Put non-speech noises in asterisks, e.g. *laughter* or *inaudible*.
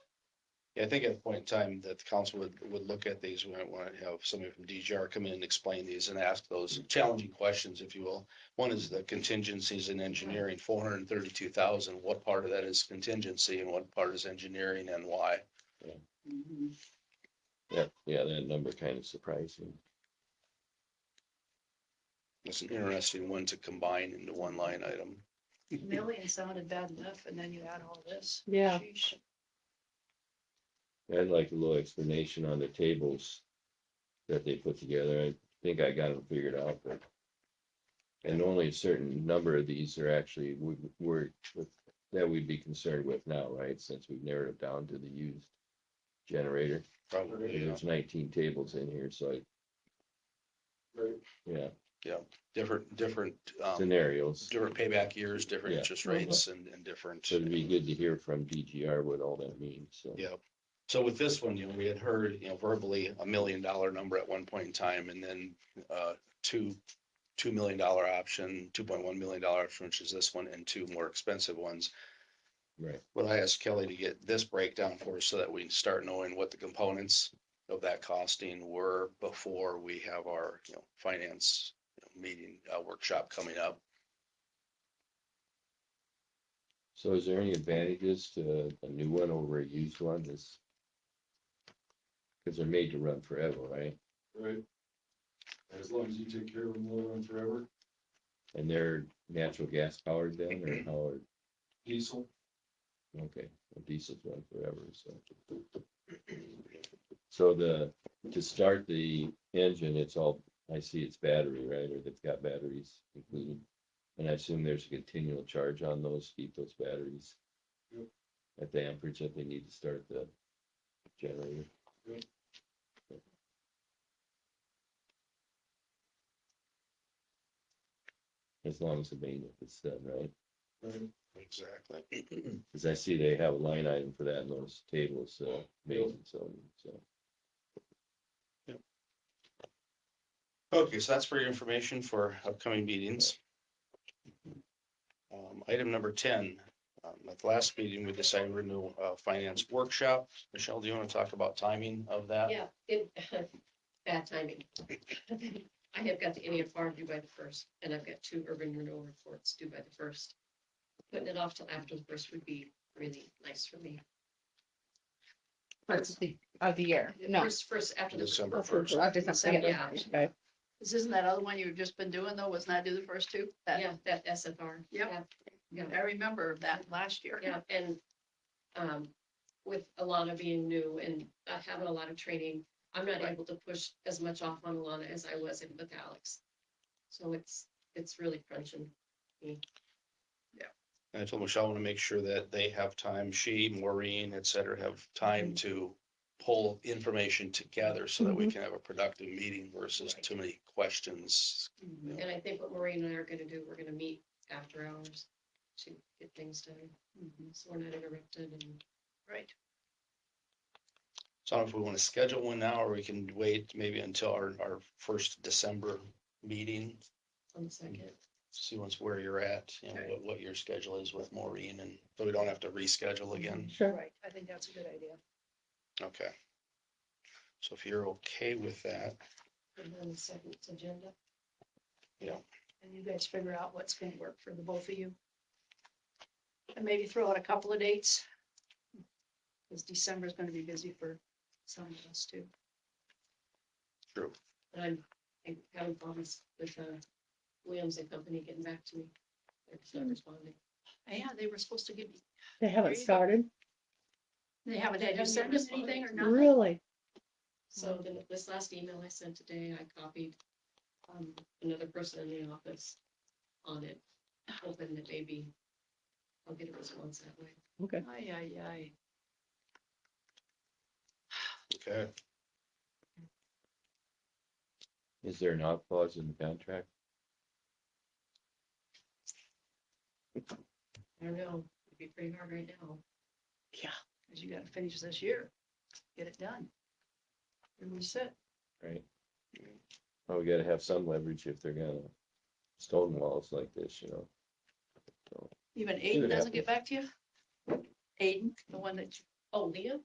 I think at a point in time that the council would, would look at these, we might want to have somebody from DGR come in and explain these and ask Mm-hmm. those challenging questions, if you will. One is the contingencies in engineering, four hundred and thirty-two thousand, what part of that is contingency and what part is engineering and why? Mm-hmm. Yeah, yeah, that number kind of surprised me. It's an interesting one to combine into one line item. Million sounded bad enough, and then you add all this. Yeah. Sheesh. I'd like a little explanation on the tables that they put together. I think I got them figured out, but. And only a certain number of these are actually, we, we're, that we'd be concerned with now, right? Since we've narrowed it down to the used generator. Probably, yeah. There's nineteen tables in here, so I, yeah, different, different, um, scenarios. different payback years, different Yeah. interest rates and, and different. So it'd be good to hear from DGR what all that means, so. Yeah. So with this one, you know, we had heard, you know, verbally a million dollar number at one point in time and then uh two, two million dollar option, two point one million dollar option, which is this one, and two more expensive ones. Right. But I asked Kelly to get this breakdown for us so that we can start knowing what the components of that costing were before we have our, you know, finance meeting uh, workshop coming up. So is there any advantages to a new one over a used one? This. Cause they're made to run forever, right? Right. As long as you take care of them, they'll run forever. And they're natural gas powered then or how are, Diesel, okay, well, diesels run forever, so. So the, to start the engine, it's all, I see it's battery, right? Or they've got batteries included. And I assume there's a continual charge on those, to keep those batteries. Yep. At the amperage that they need to start the generator. As long as the maintenance is done, right? right? Exactly. Cause I see they have a line item for that in those tables, so, maintenance, so, so. Okay, so that's for your information for upcoming meetings. Um, Item number ten, um, at the last meeting, we decided we're going to uh, finance workshop. Michelle, do you want to talk about timing of that? Yeah, it, *laughs* bad timing. I have got the Indian farm due by the first, and I've got two urban renewal reports due by the first. Putting it off till after the first would be really nice for me. First of the, of the year, The no. First, first after the. December first. I'll just have to get Yeah. it. Okay. This isn't that other one you've just been doing, though, was not do the first two? That- Yeah, that SFR. Yep. Yeah. I remember that last year. Yeah, and um, with Alana being new and not having a lot of training, I'm not Right. able to push as much off on Alana as I was in with Alex. So it's, it's really crunching. And I told Michelle, I want to make sure that they have time, she, Maureen, et cetera, have time to pull information together so that we can have a productive meeting versus too many questions. Mhm. And I think what Maureen and I are gonna do, we're gonna meet after hours to get things done, Mhm. so we're not interrupted and. Right. So I don't know if we want to schedule one now or we can wait maybe until our, our first December meeting. On the second, see once where you're at, you know, Okay. what, what your schedule is with Maureen and so we don't have to reschedule again. Sure. Right, I think that's a good idea. Okay. So if you're okay with that, and then the second agenda, And you guys figure out what's gonna work for the both of you. And maybe throw out a couple of dates. Because December's gonna be busy for some of us too. true. and I'm, I'm having problems with, uh, Williams and Company getting back to me. They're just not responding. *laughs* Yeah, they were supposed to give, me- They There haven't you go. started, they haven't They had you haven't send yet us anything or responded. nothing? really? So then this last email I sent today, I copied um another person in the office on it, hoping that maybe I'll get a response that way. Okay. Aye, aye, aye. Okay. Is there an out clause in the contract? I don't know, it'd be pretty hard right now. Because you gotta finish this year, get it done. And we said, right? Well, we gotta have some leverage if they're gonna stone walls like this, you know? even it Aiden doesn't get back to you? Aiden, the one that, you- Oh, Leah?